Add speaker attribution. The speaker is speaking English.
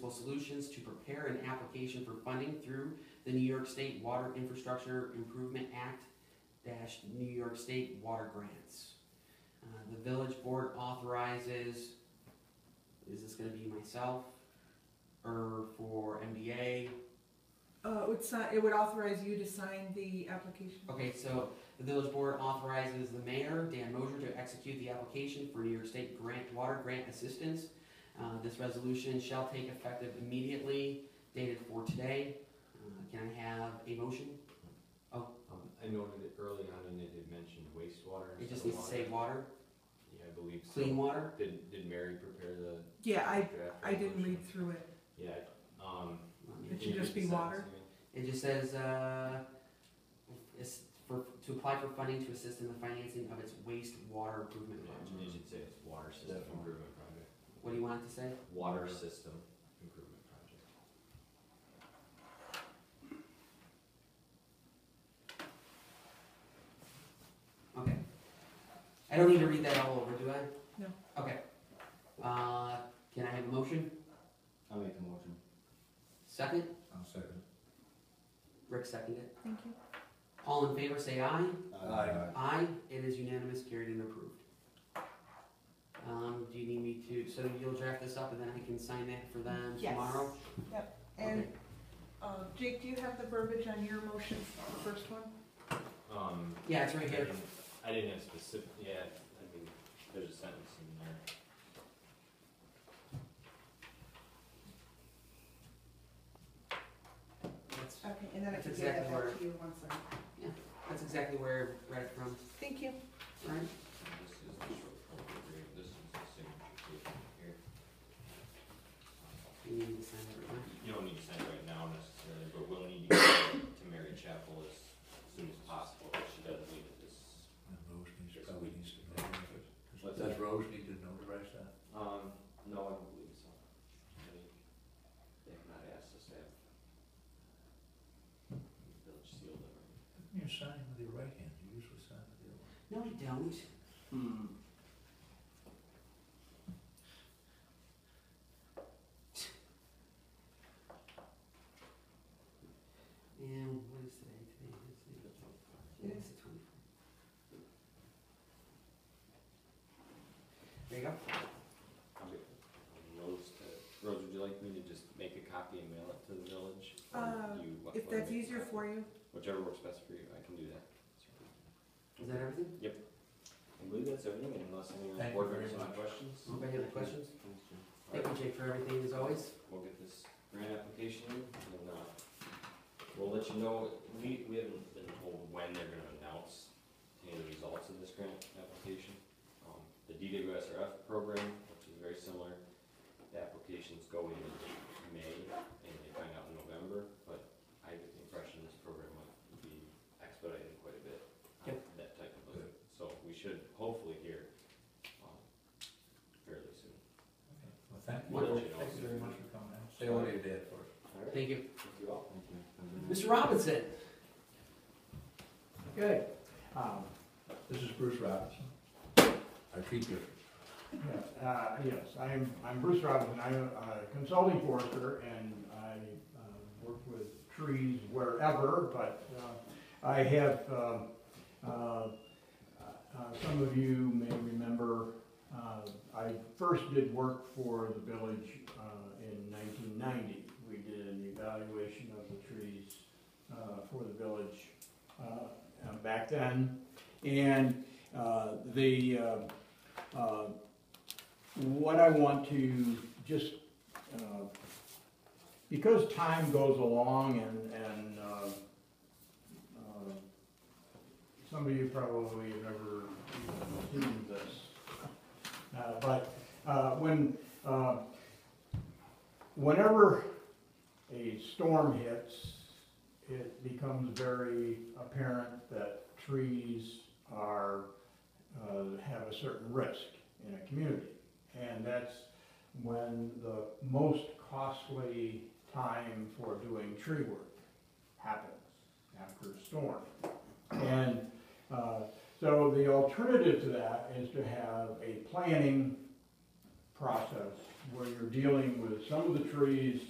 Speaker 1: Municipal Solutions to prepare an application for funding through the New York State Water Infrastructure Improvement Act dash New York State Water Grants. Uh, The village board authorizes, is this gonna be myself? Or for MDA?
Speaker 2: Uh, it would si- it would authorize you to sign the application.
Speaker 1: Okay, so the village board authorizes the mayor, Dan Moser, to execute the application for New York State grant, water grant assistance. Uh, this resolution shall take effective immediately, dated for today. Uh, Can I have a motion?
Speaker 3: Um, I noted it early on and it had mentioned wastewater
Speaker 1: It
Speaker 3: instead
Speaker 1: just
Speaker 3: of
Speaker 1: needs to say
Speaker 3: water.
Speaker 1: water,
Speaker 3: Yeah, I believe so.
Speaker 1: clean water.
Speaker 3: Did, did Mary prepare the
Speaker 2: Yeah, I,
Speaker 3: draft?
Speaker 2: I didn't
Speaker 3: resolution?
Speaker 2: read through it.
Speaker 3: Yeah, um.
Speaker 1: Let me-
Speaker 2: It should
Speaker 3: you
Speaker 2: just
Speaker 3: could
Speaker 2: be
Speaker 3: send it
Speaker 2: water.
Speaker 3: to me.
Speaker 1: It just says, uh, it's for, to apply for funding to assist in the financing of its wastewater improvement
Speaker 3: Yeah, You
Speaker 1: project.
Speaker 3: should say it's water system
Speaker 4: Definitely.
Speaker 3: improvement project.
Speaker 1: What do you want it to say?
Speaker 3: Water system improvement project.
Speaker 1: Okay. I don't need to read that all over, do I?
Speaker 2: No.
Speaker 1: Okay. Uh, can I have a motion?
Speaker 4: I'll make the motion.
Speaker 1: Second?
Speaker 4: I'll second.
Speaker 1: Rick seconded.
Speaker 2: Thank you.
Speaker 1: All in favor, say aye.
Speaker 4: Aye.
Speaker 1: Aye, it is unanimous, carried and approved. Um, do you need me to, so you'll draft this up and then I can sign that for them
Speaker 2: Yes.
Speaker 1: tomorrow?
Speaker 2: And, uh, Jake, do you have the verbiage on your motion, the first one?
Speaker 3: Um.
Speaker 1: Yeah, it's right
Speaker 3: I
Speaker 1: here.
Speaker 3: didn't- I didn't have specific, yeah, I mean, there's a sentence in there.
Speaker 1: That's,
Speaker 2: Okay, and then I
Speaker 1: That's
Speaker 2: can get that
Speaker 1: exactly where-
Speaker 2: back to you once I'm.
Speaker 1: that's exactly where I read it from,
Speaker 2: Thank you.
Speaker 1: All right?
Speaker 3: This is the short form agreement, this is the signature page here. Um,
Speaker 1: You need to sign it right now.
Speaker 3: You don't need to send it right now necessarily, but we'll need you to get it to Mary Chapel as soon as possible, if she doesn't leave it this.
Speaker 5: And Rose needs, probably needs to notarize it. Does Rose need to notarize that?
Speaker 3: Um, no, I don't believe so. They- They have not asked us to have the village seal them.
Speaker 5: You sign with your right hand, you usually sign with your left.
Speaker 1: No, you don't.
Speaker 4: Hmm.
Speaker 1: And what is today? Today is the twenty-fourth.
Speaker 2: It
Speaker 1: the twenty-fourth. There you go.
Speaker 3: Okay. Um, Rose, to- Rose, would you like me to just make a copy and mail it to the village? or
Speaker 2: Uh,
Speaker 3: you want-
Speaker 2: If
Speaker 3: wanna
Speaker 2: that's
Speaker 3: make a
Speaker 2: easier
Speaker 3: copy?
Speaker 2: for you.
Speaker 3: Whichever works best for you, I can do that.
Speaker 1: Is that everything?
Speaker 3: I believe that's everything, unless anyone on
Speaker 5: Thank
Speaker 3: board
Speaker 5: you very
Speaker 3: members have
Speaker 5: much.
Speaker 3: questions.
Speaker 1: Anybody have any questions?
Speaker 3: Thanks, Jim. All
Speaker 1: Thank
Speaker 3: right,
Speaker 1: you, Jake, for everything as always.
Speaker 3: we'll get this grant application in, and, uh, we'll let you know, we, we haven't been told when they're gonna announce any of the results of this grant application. Um, The DWSRF program, which is very similar, the applications go in May, and they find out in November, but I get the impression this program might be expedited quite a bit. on That type of,
Speaker 5: Good.
Speaker 3: so we should hopefully hear, um, fairly soon.
Speaker 5: Okay. Well, thank you.
Speaker 3: Wonderful.
Speaker 5: Thank you very much for coming out. Say what you did for us.
Speaker 3: All right,
Speaker 1: Thank you.
Speaker 3: thank you all.
Speaker 4: Thank you. Have a good night.
Speaker 1: Mr. Robinson?
Speaker 5: Okay, um, this is Bruce Robinson. Our teacher.
Speaker 6: Yes, uh, yes, I'm, I'm Bruce Robinson, I'm a consulting forester, and I uh, work with trees wherever, but uh, I have, uh, uh, uh, some of you may remember, uh, I first did work for the village uh, in 1990. We did an evaluation of the trees uh, for the village uh, back then, and uh, the, uh, uh, what I want to just, uh, because time goes along and, and, uh, uh, some of you probably have never even seen this. Uh, but, uh, when, uh, whenever a storm hits, it becomes very apparent that trees are, uh, have a certain risk in a community. And that's when the most costly time for doing tree work happens after a storm. And uh, so the alternative to that is to have a planning process where you're dealing with some of the trees